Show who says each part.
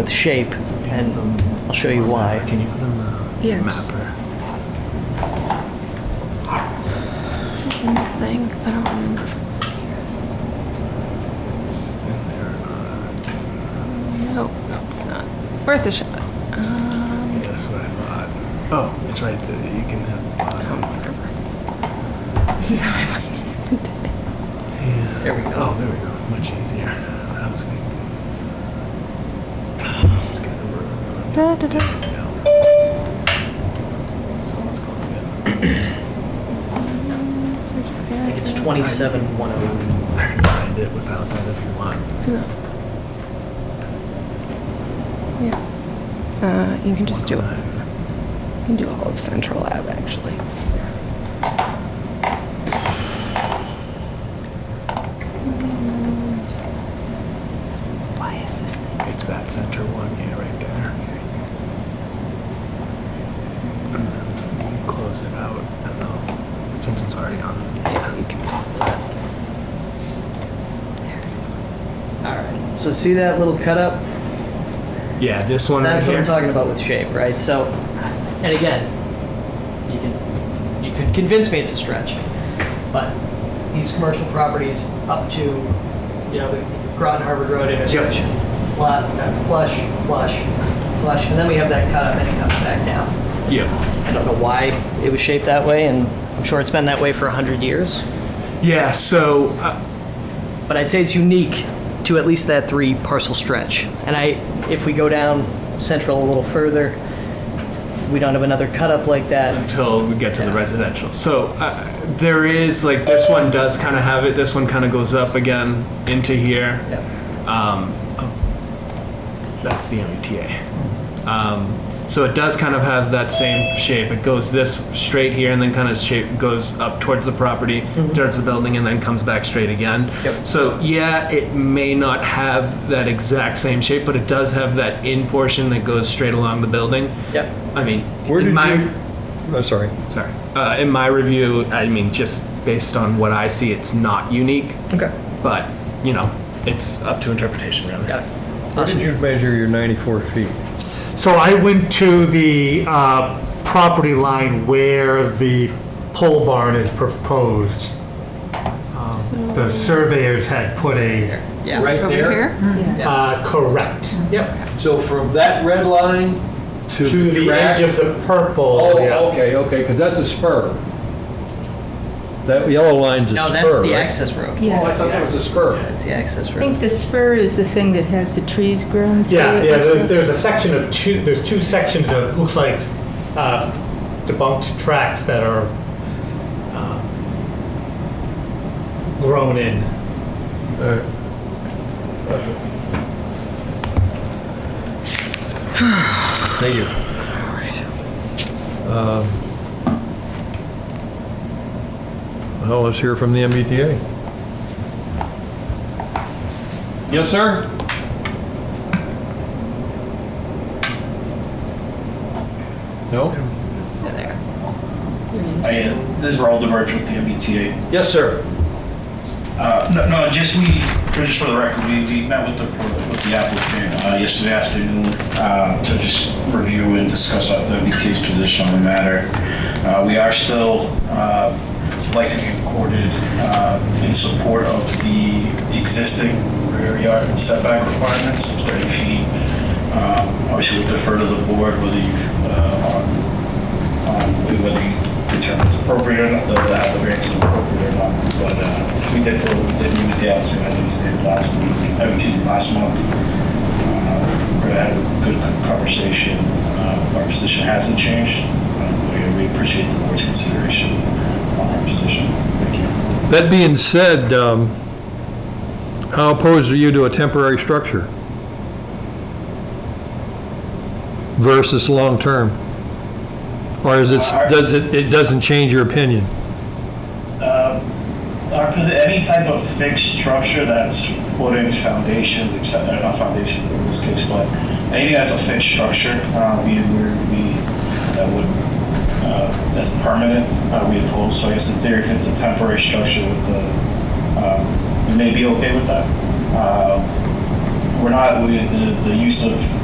Speaker 1: with shape, and I'll show you why.
Speaker 2: Uh, Can you put on the
Speaker 3: Yeah, just-
Speaker 2: mapper?
Speaker 3: Is it in the thing? I don't remember if it was in here.
Speaker 2: It's in there. Uh,
Speaker 3: No, no, it's not. Worth a shot. Um,
Speaker 2: yeah, that's what I thought. Oh, it's right there. You can
Speaker 3: I
Speaker 2: have.
Speaker 3: don't
Speaker 2: Uh,
Speaker 3: remember. This is how I find it every day.
Speaker 2: yeah.
Speaker 1: There we go.
Speaker 2: Oh, there we go. Much easier. I was gonna. It's got a room.
Speaker 3: Da, da, da.
Speaker 2: Yeah. So let's call it good.
Speaker 1: I think it's 27108.
Speaker 2: I can find it without that if you want.
Speaker 3: No. Yeah. Uh, you can just do it.
Speaker 2: 109.
Speaker 3: You can do all of Central Lab actually. Why is this thing?
Speaker 2: It's that center one, yeah, right there. And then you close it out, and then since it's already on,
Speaker 3: Yeah, you can.
Speaker 1: All right. So see that little cut up?
Speaker 2: yeah, this one
Speaker 1: That's
Speaker 2: right
Speaker 1: what
Speaker 2: here.
Speaker 1: I'm talking about with shape, right? So, and again, you can you could convince me it's a stretch, but these commercial properties up to you know the Groton Harvard Road intersection, flat, uh, flush, flush, flush, and then we have that cut up and it comes back down.
Speaker 2: Yeah.
Speaker 1: I don't know why it was shaped that way, and I'm sure it's been that way for hundred years.
Speaker 2: Yeah. So uh,
Speaker 1: but I'd say it's unique to at least that three parcel stretch. And I, if we go down central a little further, we don't have another cut up like that.
Speaker 2: until we get to the
Speaker 1: Yeah.
Speaker 2: residential, so uh, there is like this one does kind of have it. This one kind of goes up again into here.
Speaker 1: Yeah.
Speaker 2: Um, oh, that's the MBTA. Um, so it does kind of have that same shape. It goes this straight here and then kind of shape goes up towards the property, towards the building, and then comes back straight again.
Speaker 1: Mm-hmm. Yep.
Speaker 2: So yeah, it may not have that exact same shape, but it does have that in portion that goes straight along the building.
Speaker 1: Yep.
Speaker 2: I mean,
Speaker 4: Where
Speaker 2: in
Speaker 4: did
Speaker 2: my
Speaker 4: you? I'm sorry.
Speaker 2: sorry, uh, in my review, I mean, just based on what I see, it's not unique,
Speaker 1: Okay.
Speaker 2: but you know, it's up to interpretation, really.
Speaker 1: Got it.
Speaker 4: Where did
Speaker 1: Awesome.
Speaker 4: you measure your 94 feet?
Speaker 5: So I went to the uh, property line where the pole barn is proposed. Um, The surveyors had put a,
Speaker 1: Yeah.
Speaker 4: Right
Speaker 3: Over
Speaker 4: there?
Speaker 3: here?
Speaker 5: uh, correct,
Speaker 1: Yep.
Speaker 4: So from that red line to
Speaker 5: to the
Speaker 4: track-
Speaker 5: edge of the purple.
Speaker 4: Oh,
Speaker 5: yeah.
Speaker 4: okay, okay, because that's a spur. That yellow line's a spur,
Speaker 1: No, that's the
Speaker 4: right?
Speaker 1: access road.
Speaker 4: Oh, I
Speaker 6: Yeah,
Speaker 4: thought that was a spur.
Speaker 1: That's the access
Speaker 6: I think
Speaker 1: road.
Speaker 6: the spur is the thing that has the trees grown through
Speaker 5: Yeah,
Speaker 6: it.
Speaker 5: yeah, there's, there's a section of two, there's two sections of, looks like uh, debunked tracks that are uh, grown in.
Speaker 4: Thank you. Um, Well, let's hear from the MBTA. Yes, sir? No?
Speaker 7: I, uh, these were all diverged with the MBTA.
Speaker 4: Yes, sir.
Speaker 7: Uh, no, no, just we, for- just for the record, we, we met with the, with the applicant, uh, yesterday afternoon, uh, to just review and discuss uh, the MBTA's position on the matter. Uh, we are still, uh, like to be recorded, uh, in support of the existing rear yard setback requirements of thirty feet. Um, obviously we'll defer to the board whether you, uh, on um, we would determine it's appropriate or not, that the variance is appropriate or not. But uh, we did, we did meet with the applicant, I think it was the last week, I mean, it's last month. Uh, We had a good conversation. Uh, Our position hasn't changed. Uh, We we appreciate the board's consideration on our position. Thank you.
Speaker 4: That being said, um, how opposed are you to a temporary structure? Versus long-term? Or is it, does it, it doesn't change your opinion?
Speaker 7: Our, posi- Uh, any type of fixed structure that's footings, foundations, except, not foundation in this case, but anything that's a fixed structure, uh, we, we're- we, that would, uh, that's permanent, uh, we oppose. So I guess in theory, if it's a temporary structure with the, um, we may be okay with that. Uh, We're not, we, the, the use of